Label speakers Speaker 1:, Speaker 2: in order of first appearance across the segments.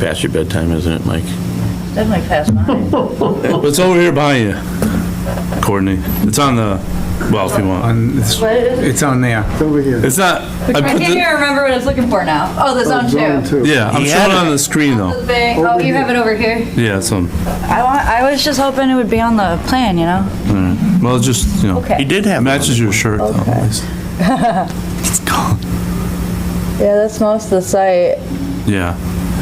Speaker 1: past your bedtime, isn't it, Mike?
Speaker 2: Definitely past mine.
Speaker 3: It's over here by you, Courtney. It's on the, well, if you want.
Speaker 4: On, it's,
Speaker 2: What is it?
Speaker 4: it's on there.
Speaker 5: over here.
Speaker 3: It's not,
Speaker 2: I
Speaker 3: I put
Speaker 2: can't
Speaker 3: the,
Speaker 2: even remember what I was looking for now. Oh, the zone
Speaker 5: Zone
Speaker 2: two.
Speaker 5: two.
Speaker 3: yeah, I'm
Speaker 1: He had
Speaker 3: showing
Speaker 1: it.
Speaker 3: on the screen though.
Speaker 2: The big- Oh, you have it over here.
Speaker 3: Yeah, it's on,
Speaker 2: I want, I was just hoping it would be on the plan, you know?
Speaker 3: well, it's just, you know,
Speaker 2: Okay.
Speaker 1: He did
Speaker 3: it
Speaker 1: have.
Speaker 3: matches your shirt though.
Speaker 2: Okay.
Speaker 3: at least. It's gone.
Speaker 2: Yeah, that's most of the site.
Speaker 3: Yeah,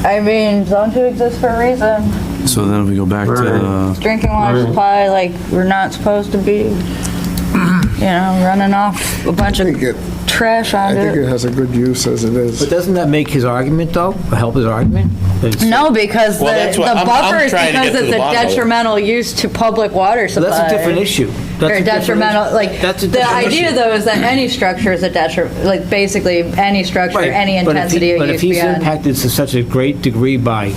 Speaker 2: I mean, zone two exists for a reason.
Speaker 3: so then if we go back to the,
Speaker 2: Drinking water supply, like, we're not supposed to be, you know, running off a bunch
Speaker 5: I think it-
Speaker 2: of trash
Speaker 5: I
Speaker 2: on
Speaker 5: think
Speaker 2: it.
Speaker 5: it has a good use as it
Speaker 6: But
Speaker 5: is.
Speaker 6: doesn't that make his argument, though? Help his argument? It's-
Speaker 2: No, because the,
Speaker 1: Well, that's what-
Speaker 2: the
Speaker 1: I'm- I'm
Speaker 2: buffer is
Speaker 1: trying to
Speaker 2: because
Speaker 1: get to
Speaker 2: it's
Speaker 1: the
Speaker 2: a
Speaker 1: bottom of it.
Speaker 2: detrimental use to public water
Speaker 6: But
Speaker 2: supply.
Speaker 6: That's a different issue. That's a
Speaker 2: Or
Speaker 6: different-
Speaker 2: detrimental, like,
Speaker 6: That's a
Speaker 2: the
Speaker 6: different
Speaker 2: idea
Speaker 6: issue.
Speaker 2: though is that any structure is a detriment, like, basically, any structure,
Speaker 6: Right,
Speaker 2: any
Speaker 6: but if he-
Speaker 2: intensity of
Speaker 6: But
Speaker 2: use
Speaker 6: if he's
Speaker 2: beyond.
Speaker 6: impacted to such a great degree by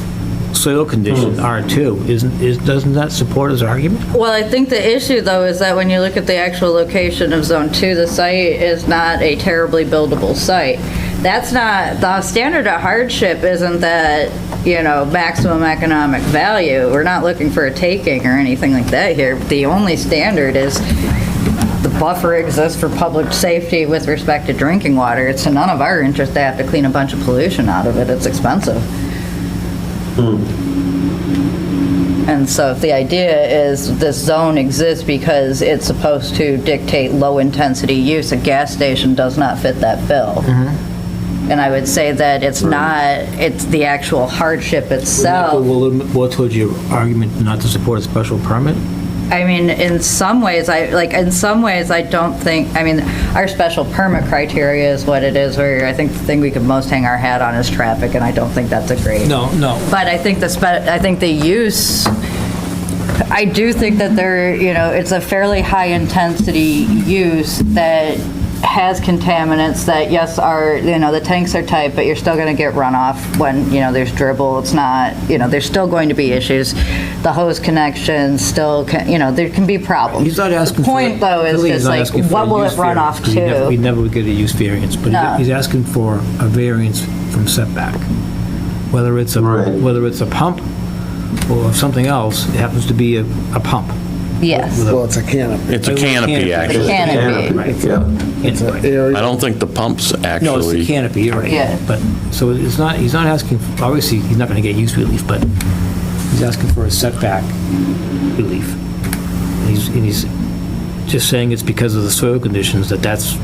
Speaker 6: soil condition, R2, isn't, is, doesn't that support his argument?
Speaker 2: Well, I think the issue though is that when you look at the actual location of Zone 2, the site is not a terribly buildable site. That's not, the standard of hardship isn't that, you know, maximum economic value. We're not looking for a taking or anything like that here. The only standard is the buffer exists for public safety with respect to drinking water. It's in none of our interest to have to clean a bunch of pollution out of it. It's expensive. And so if the idea is this zone exists because it's supposed to dictate low-intensity use, a gas station does not fit that bill. And I would say that it's not, it's the actual hardship itself.
Speaker 6: Will, will told your argument not to support a special permit?
Speaker 2: I mean, in some ways, I, like, in some ways, I don't think, I mean, our special permit criteria is what it is, where I think the thing we could most hang our hat on is traffic, and I don't think that's a great.
Speaker 6: No, no.
Speaker 2: But I think the, spe- I think the use, I do think that there, you know, it's a fairly high-intensity use that has contaminants that, yes, are, you know, the tanks are tight, but you're still going to get runoff when, you know, there's dribble, it's not, you know, there's still going to be issues. The hose connections still, ca- you know, there can be problems.
Speaker 6: He's not asking
Speaker 2: The
Speaker 6: for.
Speaker 2: point, though, is
Speaker 6: really he's
Speaker 2: just
Speaker 6: not
Speaker 2: like,
Speaker 6: asking for
Speaker 2: what
Speaker 6: a
Speaker 2: will
Speaker 6: use
Speaker 2: it run
Speaker 6: variance,
Speaker 2: off
Speaker 6: 'cause he never- He
Speaker 2: to?
Speaker 6: never would get a use variance, but
Speaker 2: No.
Speaker 6: he- he's asking for a variance from setback. Whether it's a, whether it's a pump or something else, it happens to be a, a pump.
Speaker 2: Yes,
Speaker 5: Well, it's a canopy.
Speaker 1: It's a canopy, actually.
Speaker 2: canopy.
Speaker 6: Right. Anyway.
Speaker 1: I don't think the pumps actually.
Speaker 6: No, it's the canopy, you're right.
Speaker 2: Yeah.
Speaker 6: But, so it's not, he's not asking, obviously, he's not going to get use relief, but he's asking for a setback relief. And He's, and he's just saying it's because of the soil conditions that that's,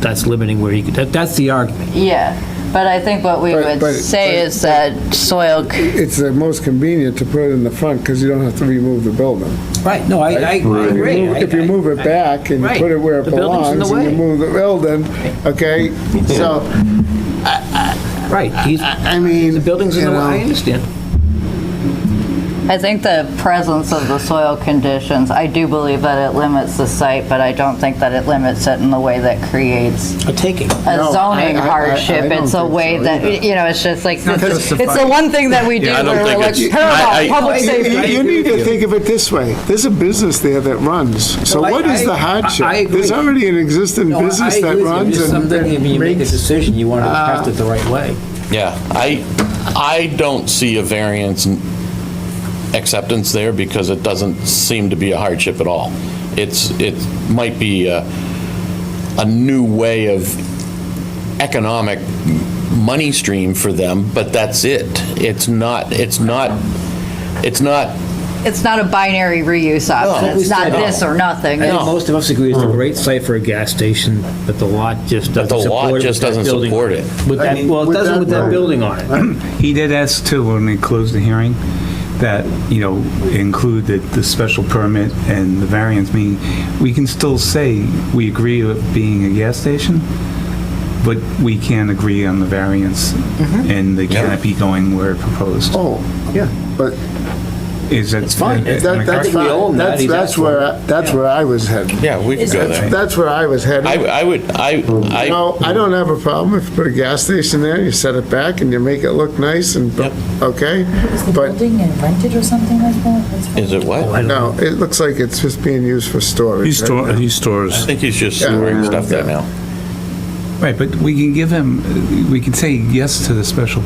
Speaker 6: that's limiting where he could, that, that's the argument.
Speaker 2: Yeah, but I think what we
Speaker 5: But-
Speaker 2: would
Speaker 5: but-
Speaker 2: say
Speaker 5: but-
Speaker 2: is that soil, c-
Speaker 5: It's the most convenient to put it in the front because you don't have to remove the building.
Speaker 6: Right, no, I, I agree.
Speaker 5: If you move it back and you put it where it
Speaker 6: Right. The building's in
Speaker 5: belongs
Speaker 6: the
Speaker 5: and you
Speaker 6: way.
Speaker 5: move the building, okay? So,
Speaker 6: Right, he's,
Speaker 5: I mean.
Speaker 6: the building's in the
Speaker 5: you
Speaker 6: way,
Speaker 5: know,
Speaker 6: I understand.
Speaker 2: I think the presence of the soil conditions, I do believe that it limits the site, but I don't think that it limits it in the way that creates
Speaker 6: A taking.
Speaker 2: a
Speaker 5: No,
Speaker 2: zoning
Speaker 5: I- I- I- I
Speaker 2: hardship.
Speaker 5: don't
Speaker 2: It's a
Speaker 5: think
Speaker 2: way
Speaker 5: so
Speaker 2: that,
Speaker 5: either.
Speaker 2: you know, it's just like,
Speaker 4: not
Speaker 2: it's it's
Speaker 4: justified.
Speaker 2: the one thing that we do
Speaker 1: Yeah, I don't
Speaker 2: where we're
Speaker 1: think
Speaker 2: like,
Speaker 1: it's- I- I-
Speaker 2: paramount, public
Speaker 5: You
Speaker 2: safety.
Speaker 5: you- you need to think of it this way. There's a business there that runs. So
Speaker 6: No, I-
Speaker 5: what is the
Speaker 6: I-
Speaker 5: hardship?
Speaker 6: I- I agree.
Speaker 5: There's already an existing
Speaker 6: No, I- I
Speaker 5: business that
Speaker 6: agree with you.
Speaker 5: runs and
Speaker 6: Just something, I mean, you make a
Speaker 5: makes- Uh,
Speaker 6: decision, you want to craft it the right way.
Speaker 1: Yeah, I, I don't see a variance in acceptance there because it doesn't seem to be a hardship at all. It's, it might be a, a new way of economic money stream for them, but that's it. It's not, it's not, it's not,
Speaker 2: It's not a binary reuse option.
Speaker 1: No.
Speaker 2: It's not
Speaker 6: No.
Speaker 2: this or nothing.
Speaker 6: I think
Speaker 2: It's-
Speaker 6: most of us agree it's
Speaker 4: Hmm.
Speaker 6: a great site for a gas station, but the lot just
Speaker 1: But
Speaker 6: doesn't
Speaker 1: the lot
Speaker 6: support it.
Speaker 1: just
Speaker 6: with that
Speaker 1: doesn't
Speaker 6: building.
Speaker 1: support it.
Speaker 6: With
Speaker 4: I
Speaker 6: that,
Speaker 4: mean,
Speaker 6: well, it
Speaker 4: with
Speaker 6: doesn't
Speaker 4: that
Speaker 6: with that
Speaker 4: road.
Speaker 6: building on it.
Speaker 4: He did ask too, when they closed the hearing, that, you know, include the, the special permit and the variance, meaning, we can still say we agree with being a gas station, but we can't agree on the variance
Speaker 5: Mm-hmm.
Speaker 4: and the canopy going where proposed.
Speaker 5: Oh, yeah, but
Speaker 4: Is that? It's
Speaker 5: That- That's
Speaker 6: we own
Speaker 5: fine.
Speaker 6: that.
Speaker 5: That's,
Speaker 6: He's
Speaker 5: that's
Speaker 6: asking.
Speaker 5: where, I- that's where I was headed.
Speaker 1: yeah, we could go
Speaker 5: That's
Speaker 1: there.
Speaker 5: that's where I was
Speaker 1: I,
Speaker 5: headed.
Speaker 1: I would, I,
Speaker 5: You
Speaker 1: I,
Speaker 5: know, I don't have a problem if you put a gas station there, you set it back and you make it look nice and, okay?
Speaker 7: Is the
Speaker 5: But,
Speaker 7: building and rented or something like that? That's
Speaker 1: is it what?
Speaker 5: no, it looks like it's just being used for storage.
Speaker 3: He
Speaker 5: right?
Speaker 3: store, he
Speaker 1: I
Speaker 3: stores,
Speaker 1: think he's just
Speaker 5: Yeah.
Speaker 1: sewering stuff there
Speaker 5: Yeah.
Speaker 1: now.
Speaker 4: Right, but we can give him, we can say yes to the special